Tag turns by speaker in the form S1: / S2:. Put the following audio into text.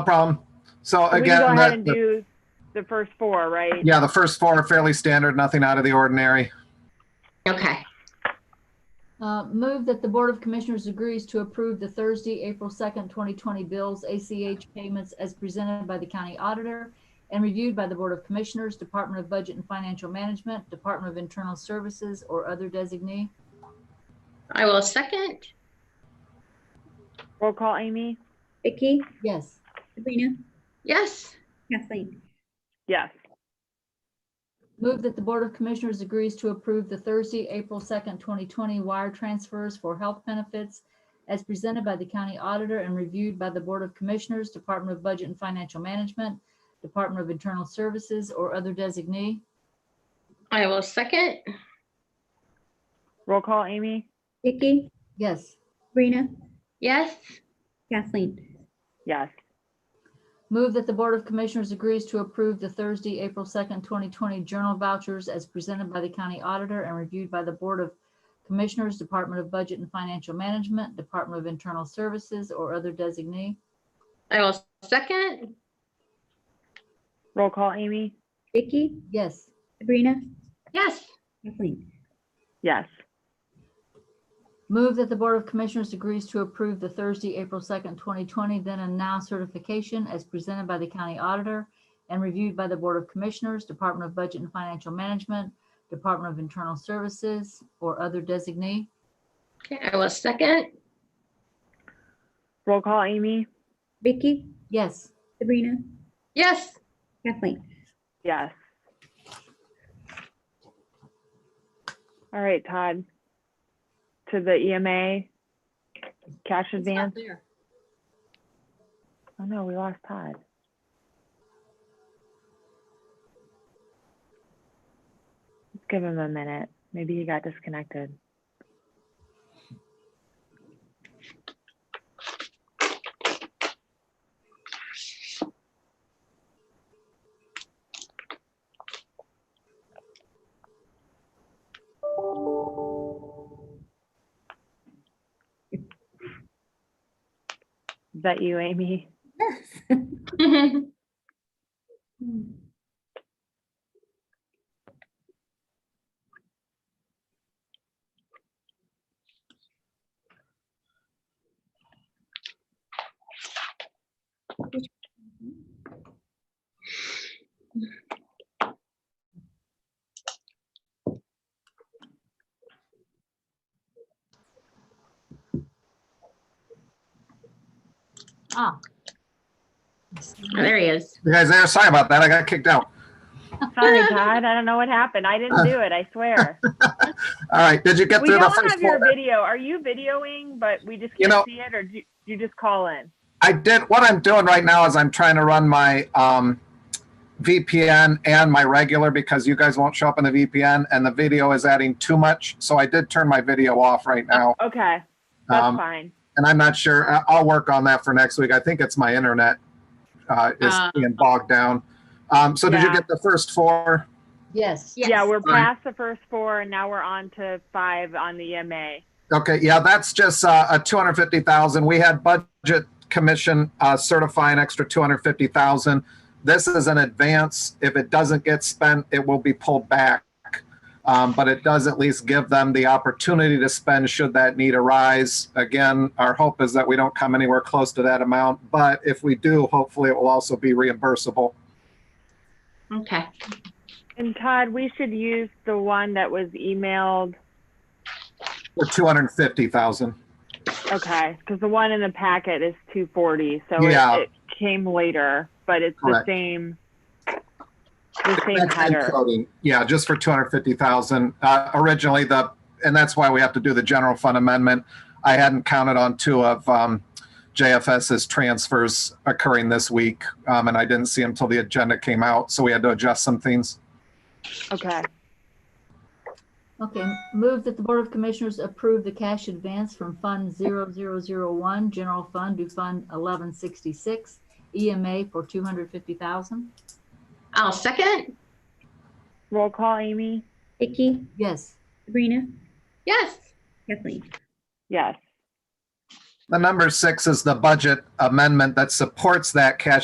S1: No problem. So
S2: We can go
S1: again,
S2: ahead and
S1: that,
S2: do the first four, right?
S1: yeah, the first four are fairly standard, nothing out of the ordinary.
S3: Okay,
S4: Uh, Move that the Board of Commissioners agrees to approve the Thursday, April 2nd, 2020 bills, ACH payments as presented by the county auditor and reviewed by the Board of Commissioners, Department of Budget and Financial Management, Department of Internal Services, or other designee.
S3: I will second.
S2: Roll call, Amy?
S5: Vicky,
S4: Yes.
S5: Sabrina,
S3: Yes,
S5: Kathleen.
S2: Yes.
S4: Move that the Board of Commissioners agrees to approve the Thursday, April 2nd, 2020 wire transfers for health benefits as presented by the county auditor and reviewed by the Board of Commissioners, Department of Budget and Financial Management, Department of Internal Services, or other designee.
S3: I will second.
S2: Roll call, Amy?
S5: Vicky,
S4: Yes.
S5: Sabrina,
S3: Yes,
S5: Kathleen.
S2: Yes.
S4: Move that the Board of Commissioners agrees to approve the Thursday, April 2nd, 2020 journal vouchers as presented by the county auditor and reviewed by the Board of Commissioners, Department of Budget and Financial Management, Department of Internal Services, or other designee.
S3: I will second.
S2: Roll call, Amy?
S5: Vicky,
S4: Yes.
S5: Sabrina,
S3: Yes,
S5: Kathleen.
S2: Yes.
S4: Move that the Board of Commissioners agrees to approve the Thursday, April 2nd, 2020 then and now certification as presented by the county auditor and reviewed by the Board of Commissioners, Department of Budget and Financial Management, Department of Internal Services, or other designee.
S3: okay, I will second.
S2: Roll call, Amy?
S5: Vicky,
S4: Yes.
S5: Sabrina,
S3: Yes,
S5: Kathleen.
S2: Yes. All right, Todd. To the EMA, cash advance. Oh no, we lost Todd. Let's give him a minute. Maybe he got disconnected. Is that you, Amy?
S5: Hmm.
S4: Ah,
S3: there he is.
S1: You guys there, sorry about that, I got kicked out.
S2: Sorry, Todd. I don't know what happened. I didn't do it. I swear.
S1: All right, did you get
S2: We
S1: through the
S2: don't
S1: first
S2: have your
S1: four?
S2: video. Are you videoing, but we just
S1: You
S2: can't
S1: know-
S2: see it, or do you- you just call in?
S1: I did, what I'm doing right now is I'm trying to run my um, VPN and my regular because you guys won't show up in the VPN and the video is adding too much. So I did turn my video off right now.
S2: Okay, that's
S1: Um,
S2: fine.
S1: and I'm not sure, I- I'll work on that for next week. I think it's my internet uh, is
S3: Uh,
S1: being bogged down. Um, so did you
S2: Yeah.
S1: get the first four?
S4: yes.
S3: Yes.
S2: Yeah, we're
S1: fine.
S2: past the first four, and now we're on to five on the E EMA.
S1: Okay, yeah, that's just uh, a two hundred fifty thousand. We had budget commission uh, certify an extra two hundred fifty thousand. This is an advance. If it doesn't get spent, it will be pulled back. Um, but it does at least give them the opportunity to spend should that need arise. Again, our hope is that we don't come anywhere close to that amount, but if we do, hopefully it will also be reimbursable.
S3: Okay,
S2: And Todd, we should use the one that was emailed.
S1: Or two hundred fifty thousand.
S2: Okay, because the one in the packet is two forty, so
S1: Yeah.
S2: it, it came later, but it's
S1: Correct.
S2: the same. The same header.
S1: Yeah, just for two hundred fifty thousand. Uh, originally the, and that's why we have to do the general fund amendment. I hadn't counted on two of, um, JFS's transfers occurring this week. Um, and I didn't see them till the agenda came out, so we had to adjust some things.
S2: Okay.
S4: Okay, move that the Board of Commissioners approve the cash advance from Fund 0001, General Fund to Fund 1166, EMA for 250,000.
S3: I'll second.
S2: Roll call, Amy?
S5: Vicky,
S4: Yes.
S5: Sabrina,
S3: Yes,
S5: Kathleen.
S2: Yes.
S1: The number six is the budget amendment that supports that cash